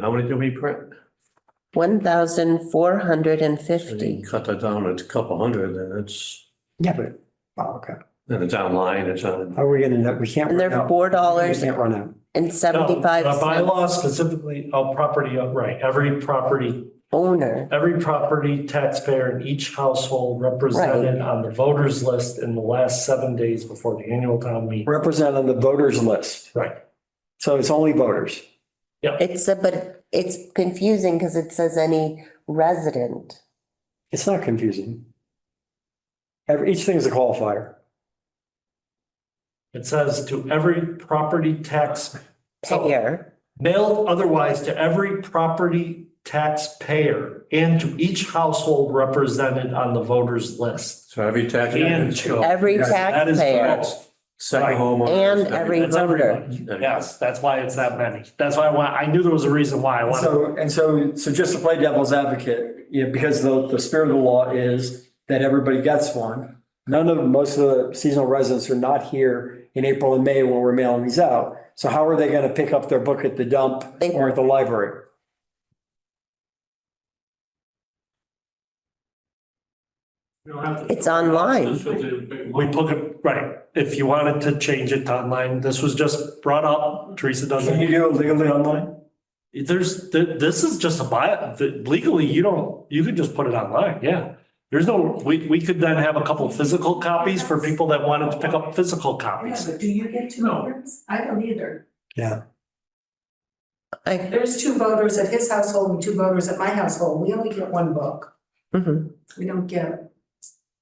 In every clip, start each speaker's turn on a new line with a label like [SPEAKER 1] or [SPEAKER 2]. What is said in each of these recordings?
[SPEAKER 1] How many do we print?
[SPEAKER 2] one thousand four hundred and
[SPEAKER 1] So you
[SPEAKER 2] fifty.
[SPEAKER 1] Cut that down, it's a couple hundred and it's,
[SPEAKER 3] Yeah, but, oh, okay.
[SPEAKER 1] and it's online, it's on.
[SPEAKER 3] How are we gonna, know? we can't.
[SPEAKER 2] And
[SPEAKER 3] run
[SPEAKER 2] they're
[SPEAKER 3] out.
[SPEAKER 2] four
[SPEAKER 3] We
[SPEAKER 2] dollars
[SPEAKER 3] can't run out.
[SPEAKER 2] and
[SPEAKER 4] No,
[SPEAKER 2] seventy-five
[SPEAKER 4] uh, By
[SPEAKER 2] cents
[SPEAKER 4] law specifically, all property, uh, right, every property,
[SPEAKER 2] owner.
[SPEAKER 4] every property taxpayer in each household represented on the voters list in the last seven days before the annual town meeting.
[SPEAKER 3] Represent on the voters list.
[SPEAKER 4] Right,
[SPEAKER 3] So it's only voters.
[SPEAKER 2] It's, a- but it's confusing because it says any resident.
[SPEAKER 3] It's not confusing. Every, each thing is a qualifier.
[SPEAKER 4] it says to every property tax. so-
[SPEAKER 2] Payer,
[SPEAKER 4] Mailed otherwise to every property taxpayer and to each household represented on the voters list.
[SPEAKER 1] So every tax.
[SPEAKER 4] And to.
[SPEAKER 2] every
[SPEAKER 1] Yes,
[SPEAKER 4] That is
[SPEAKER 2] taxpayer
[SPEAKER 4] correct.
[SPEAKER 1] Second homeowner.
[SPEAKER 2] And every-
[SPEAKER 4] That's everybody.
[SPEAKER 1] voter.
[SPEAKER 4] Yes, that's why it's that many. That's why I want, I knew there was a reason why I wanted.
[SPEAKER 3] So, and so, so just to play devil's advocate, you know, because the, the spirit of the law is that everybody gets one. None of, most of the seasonal residents are not here in April and May when we're mailing these out. So how are they gonna pick up their book at the dump
[SPEAKER 2] They-
[SPEAKER 3] or at the library?
[SPEAKER 2] It's online.
[SPEAKER 4] We put it, right, if you wanted to change it to online, this was just brought up, Teresa
[SPEAKER 3] Can you
[SPEAKER 4] doesn't.
[SPEAKER 3] do it legally online?
[SPEAKER 4] There's, th- this is just a buy, legally, you don't, you could just put it online, yeah. There's no, we, we could then have a couple of physical copies for people that wanted to pick up physical
[SPEAKER 5] Oh, Yeah,
[SPEAKER 4] copies.
[SPEAKER 5] but do you get two
[SPEAKER 4] No.
[SPEAKER 5] voters? I don't either.
[SPEAKER 2] I-
[SPEAKER 5] There's two voters at his household and two voters at my household. We only get one book.
[SPEAKER 2] Mhm.
[SPEAKER 5] We don't get,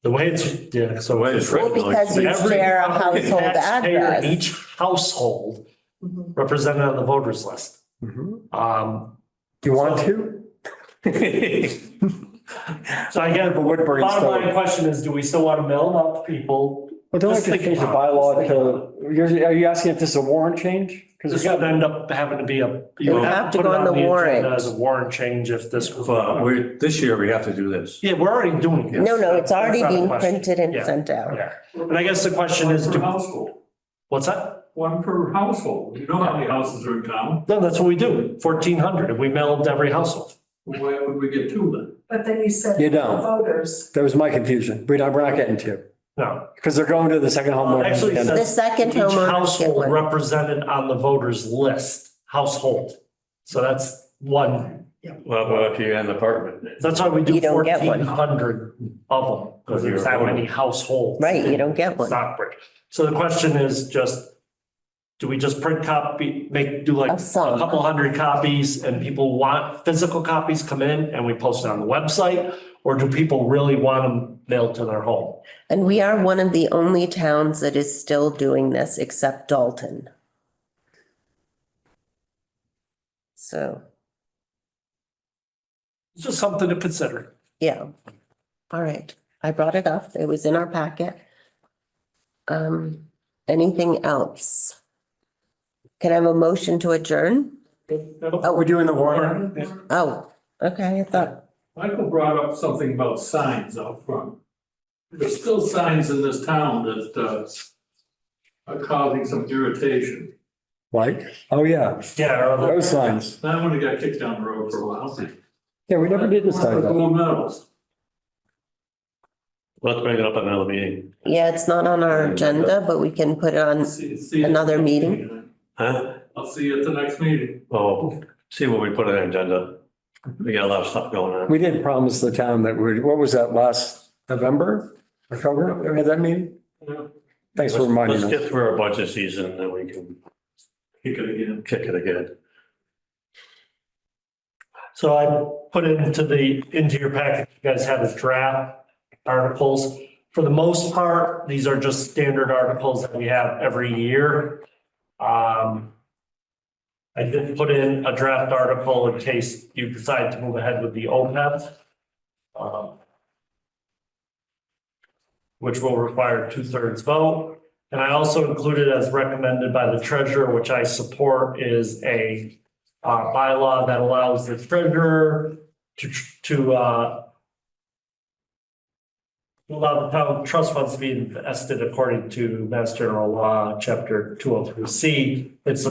[SPEAKER 4] The way it's, yeah, so.
[SPEAKER 1] The way it's
[SPEAKER 2] Well,
[SPEAKER 1] written. like-
[SPEAKER 2] because you
[SPEAKER 4] Every
[SPEAKER 2] share a household
[SPEAKER 4] taxpayer in
[SPEAKER 2] address.
[SPEAKER 4] Each household Mm-hmm.
[SPEAKER 5] Mhm.
[SPEAKER 4] represented on the voters list.
[SPEAKER 3] Do
[SPEAKER 4] Um,
[SPEAKER 3] Mm-hmm. you want to?
[SPEAKER 4] so I guess
[SPEAKER 3] The Woodbury
[SPEAKER 4] Bottom line
[SPEAKER 3] story.
[SPEAKER 4] question is, do we still want to mail them out to people?
[SPEAKER 3] Well, don't we have
[SPEAKER 4] Just
[SPEAKER 3] to
[SPEAKER 4] think
[SPEAKER 3] change the
[SPEAKER 4] about it.
[SPEAKER 3] bylaw
[SPEAKER 4] Just think
[SPEAKER 3] to, you're, are you asking if this is a warrant change?
[SPEAKER 4] Because
[SPEAKER 3] Because
[SPEAKER 4] it's gonna end up having to be a. you
[SPEAKER 2] It
[SPEAKER 4] would
[SPEAKER 2] would have to
[SPEAKER 4] put
[SPEAKER 2] go
[SPEAKER 4] it
[SPEAKER 2] on the
[SPEAKER 4] agenda
[SPEAKER 2] warrant.
[SPEAKER 4] As a warrant change if this was.
[SPEAKER 1] But we, uh, this year we have to do this.
[SPEAKER 4] Yeah, we're already doing it.
[SPEAKER 2] No, no, it's already
[SPEAKER 4] That's not a
[SPEAKER 2] being
[SPEAKER 4] question.
[SPEAKER 2] printed and
[SPEAKER 4] Yeah.
[SPEAKER 2] sent out.
[SPEAKER 4] Yeah, and I guess the question is,
[SPEAKER 6] One
[SPEAKER 4] do-
[SPEAKER 6] per household,
[SPEAKER 4] what's that?
[SPEAKER 6] one per household. You know how many houses are in town?
[SPEAKER 4] No, that's what we do, fourteen hundred, and we mail them to every household.
[SPEAKER 6] Why would we get two then?
[SPEAKER 5] but then you said.
[SPEAKER 3] You don't.
[SPEAKER 5] the Voters.
[SPEAKER 3] that was my confusion. We're not, we're not getting to,
[SPEAKER 4] No,
[SPEAKER 3] because they're going to the second homeowner.
[SPEAKER 4] Actually, it
[SPEAKER 2] The
[SPEAKER 4] says-
[SPEAKER 2] second
[SPEAKER 4] each
[SPEAKER 2] homeowner get
[SPEAKER 4] household
[SPEAKER 2] one.
[SPEAKER 4] represented on the voters list, household. So that's one,
[SPEAKER 1] Well, well, if you had an apartment.
[SPEAKER 4] that's why we do
[SPEAKER 2] You don't get one.
[SPEAKER 4] fourteen hundred of them, because there's that many households.
[SPEAKER 2] Right, you don't get one.
[SPEAKER 4] Stockbridge. So the question is just, do we just print copy, make, do like
[SPEAKER 2] A
[SPEAKER 4] a
[SPEAKER 2] sum.
[SPEAKER 4] couple hundred copies and people want physical copies come in and we post it on the website? Or do people really want them mailed to their home?
[SPEAKER 2] And we are one of the only towns that is still doing this except Dalton. So,
[SPEAKER 4] It's just something to consider.
[SPEAKER 2] yeah. All right. I brought it up. It was in our packet. Um, anything else? Can I have a motion to adjourn?
[SPEAKER 3] We're doing the warrant.
[SPEAKER 2] Oh, okay, I thought,
[SPEAKER 6] Michael brought up something about signs out front. There's still signs in this town that uh, are causing some irritation.
[SPEAKER 3] Like, oh yeah,
[SPEAKER 4] Yeah, or other-
[SPEAKER 3] those signs.
[SPEAKER 6] That one got kicked down the road for a while.
[SPEAKER 3] Yeah, we never did this
[SPEAKER 6] The
[SPEAKER 3] time. though.
[SPEAKER 6] Gold medals.
[SPEAKER 1] Let's bring it up at another meeting.
[SPEAKER 2] yeah, it's not on our agenda, but we can put it on,
[SPEAKER 6] See- see-
[SPEAKER 2] Another meeting?
[SPEAKER 1] Huh?
[SPEAKER 6] I'll see you at the next meeting.
[SPEAKER 1] Oh, see what we put on the agenda. We got a lot of stuff going on.
[SPEAKER 3] We did promise the town that we, what was that last November? October, we had that meeting?
[SPEAKER 6] Yeah.
[SPEAKER 3] Thanks for reminding
[SPEAKER 1] Let's
[SPEAKER 3] us.
[SPEAKER 1] get through our budget season and then we can
[SPEAKER 6] Kick it again.
[SPEAKER 1] kick it again.
[SPEAKER 4] So I put into the, into your packet, you guys have the draft articles. For the most part, these are just standard articles that we have every year. Um, I did put in a draft article in case you decide to move ahead with the OPEB. um, Which will require two-thirds vote. And I also included as recommended by the treasurer, which I support, is a uh, bylaw that allows the treasurer to, to, uh, to allow the town trust funds to be invested according to Mass General Law, Chapter two oh three C. It's the